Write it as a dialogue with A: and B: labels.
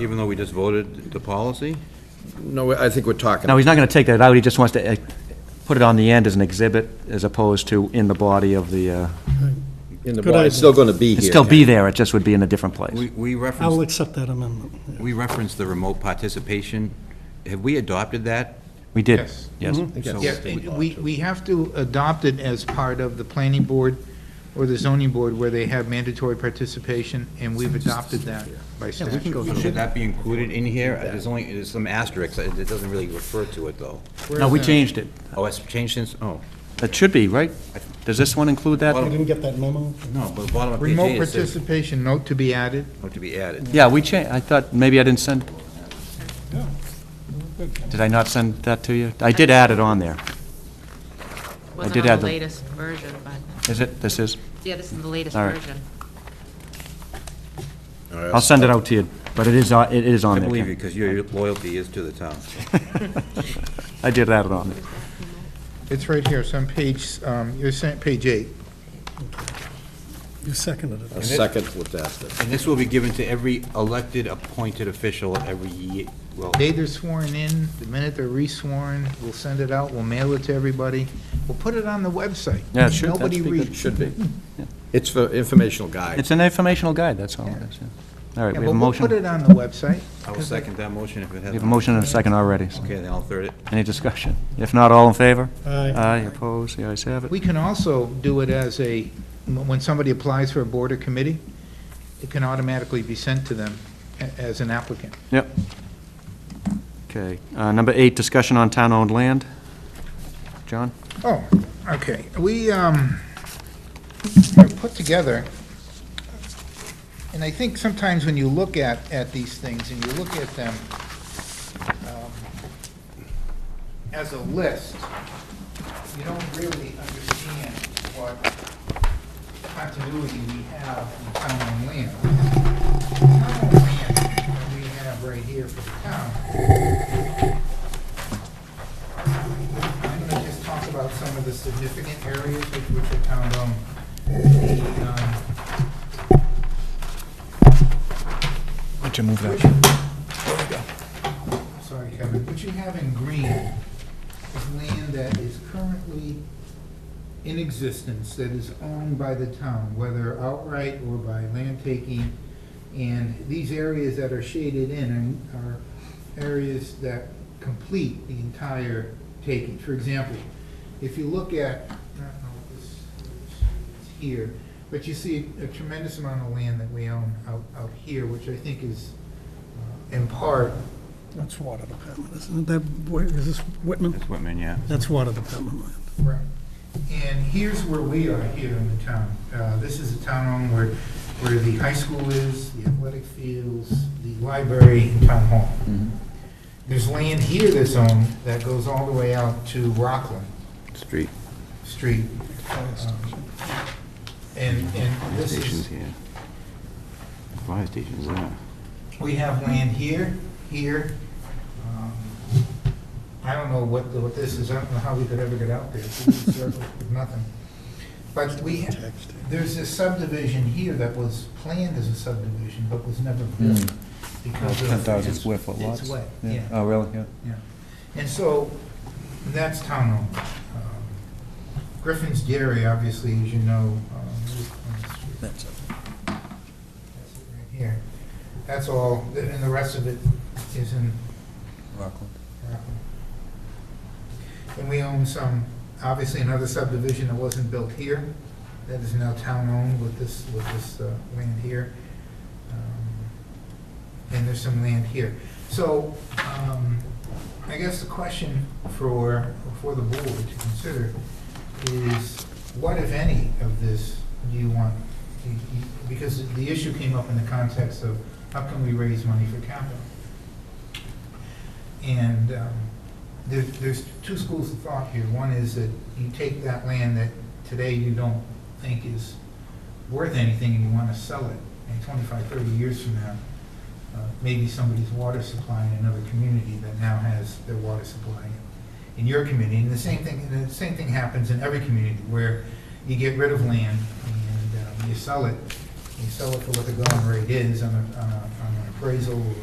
A: even though we just voted the policy?
B: No, I think we're talking.
C: No, he's not going to take that out, he just wants to uh, put it on the end as an exhibit, as opposed to in the body of the, uh,
B: In the
D: Good
B: body, it's still going to be here.
C: it'd still be there, it just would be in a different place.
A: We we
D: I'll
A: referenced,
D: accept that amendment. yeah.
A: we referenced the remote participation. Have we adopted that?
C: We did,
E: Yes. Mm-hmm.
C: yes.
A: So-
E: Yeah, and we, we have to adopt it as part of the planning board or the zoning board where they have mandatory participation, and we've adopted that by statute.
A: So Should that be included in here? There's only, there's some asterisks, it it doesn't really refer to it, though.
C: No, we changed it.
A: Oh, it's changed since, oh,
C: It should be, right? Does this one include
D: You
C: that?
D: didn't get that memo?
A: no, but bottom of page
E: Remote
A: eight, it says,
E: participation, note to be added.
A: oh, to be added.
C: Yeah, we changed, I thought, maybe I didn't send, did I not send that to you? I did add it on there.
F: Wasn't
C: did
F: on
C: add
F: the
C: the-
F: latest version, but,
C: Is it, this is?
F: yeah, this is the latest
C: All right.
F: version.
C: I'll send it out to you, but it is, on- it is on
A: I
C: there.
A: believe you,
C: Ken.
A: because your loyalty is to the town.
C: I did add it on there.
E: It's right here, it's on page, um, you're saying, page eight.
D: You seconded it.
B: A second with that.
A: And this will be given to every elected, appointed official every year, well,
E: Day they're sworn in, the minute they're re-sworn, we'll send it out, we'll mail it to everybody. We'll put it on the website.
C: Yeah, it should- that'd
E: Nobody
C: be good.
E: reads.
B: Should be. It's for informational guide.
C: It's an informational guide, that's all it is. yeah. All right,
E: Yeah,
C: we have a
E: but we'll put
C: motion,
E: it on the website.
A: I will second that motion if it has.
C: we have a motion and a second already. so-
A: Okay, then I'll third it.
C: Any discussion? If not, all in favor?
D: Aye.
C: Aye, opposed, the ayes have it.
E: We can also do it as a, when somebody applies for a board or committee, it can automatically be sent to them a- as an applicant.
C: Yep. Okay, uh, number eight, discussion on town-owned land. John?
E: Oh, okay. We um, have put together, and I think sometimes when you look at, at these things and you look at them um, as a list, you don't really understand what continuity we have in town and land. Town and land that we have right here for the town, I'm going to just talk about some of the significant areas which which are town owned. The, um,
C: Why don't you move
E: What you- Sorry, Kevin, what you have in green is land that is currently in existence that is owned by the town, whether outright or by land taking. And these areas that are shaded in are are areas that complete the entire taking. For example, if you look at, I don't know what this is here, but you see a tremendous amount of land that we own out, out here, which I think is uh, in part,
D: That's water department, isn't it? That, where- is this Whitman?
A: That's Whitman, yeah.
D: That's water department land.
E: Right. And here's where we are here in the town. Uh, This is a town home where, where the high school is, the athletic fields, the library, and town hall.
A: Mm-hmm.
E: There's land here that's owned that goes all the way out to Rockland
A: Street.
E: Street. Um, And, and
A: Fire
E: this is,
A: station's here. Fire station's there.
E: we have land here, here. um, I don't know what, what this is, I don't know how we could ever get out there, It's a circle with nothing. But we, there's this subdivision here that was planned as a subdivision, but was never built because of. it's- It's wet, yeah,
C: Oh, really? Yeah.
E: yeah. And so, that's town owned. Um, Griffin's Dairy, obviously, as you know, um, is on the street.
C: That's
E: That's it right here. That's all, and the rest of it is in and we own some, obviously another subdivision that wasn't built here, that is now town-owned with this, with this uh, land here. Um, And there's some land here. So, um, I guess the question for, for the board to consider is, what if any of this do you want? do you- you- Because the issue came up in the context of, how can we raise money for capital? And um, there- there's two schools of thought here. One is that you take that land that today you don't think is worth anything and you want to sell it. And 25, 30 years from now, uh, maybe somebody's water supply in another community that now has their water supply in your community. And the same thing, and the same thing happens in every community where you get rid of land and um, you sell it. You sell it for what the going rate is on a- on a- on an appraisal or